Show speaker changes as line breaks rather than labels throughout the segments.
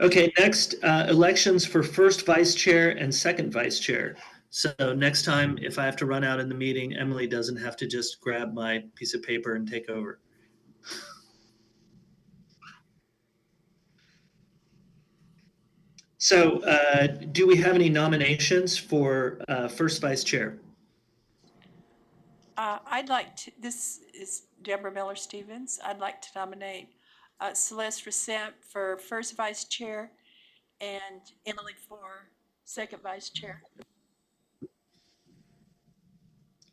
Okay, next, uh, elections for first vice chair and second vice chair. So next time, if I have to run out in the meeting, Emily doesn't have to just grab my piece of paper and take over. So uh, do we have any nominations for uh, first vice chair?
Uh, I'd like to, this is Deborah Miller Stevens. I'd like to nominate uh, Celeste Resent for first vice chair and Emily for second vice chair.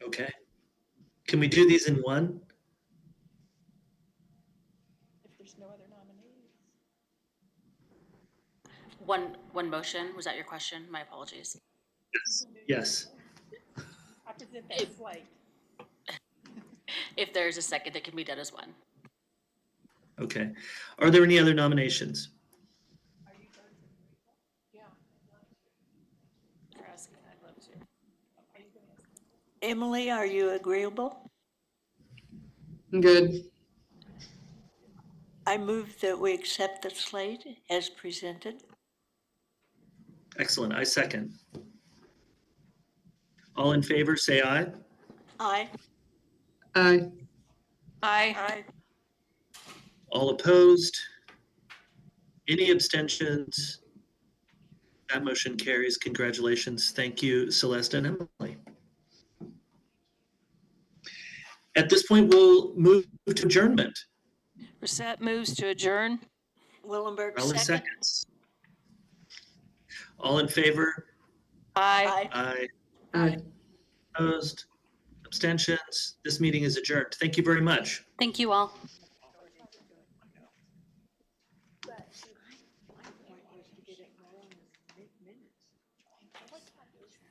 Okay. Can we do these in one?
If there's no other nominees.
One, one motion, was that your question? My apologies.
Yes. Yes.
I present that slate.
If there's a second, it can be done as one.
Okay. Are there any other nominations?
Yeah. You're asking, I'd love to. Emily, are you agreeable?
I'm good.
I move that we accept the slate as presented.
Excellent. I second. All in favor, say aye.
Aye.
Aye.
Aye.
All opposed? Any abstentions? That motion carries. Congratulations. Thank you, Celeste and Emily. At this point, we'll move to adjournment.
Brissette moves to adjourn.
Willenberg,
Rowland
second.
seconds. All in favor?
Aye.
Aye.
Aye.
Aye.
Opposed? Abstentions? This meeting is adjourned. Thank you very much.
Thank you all.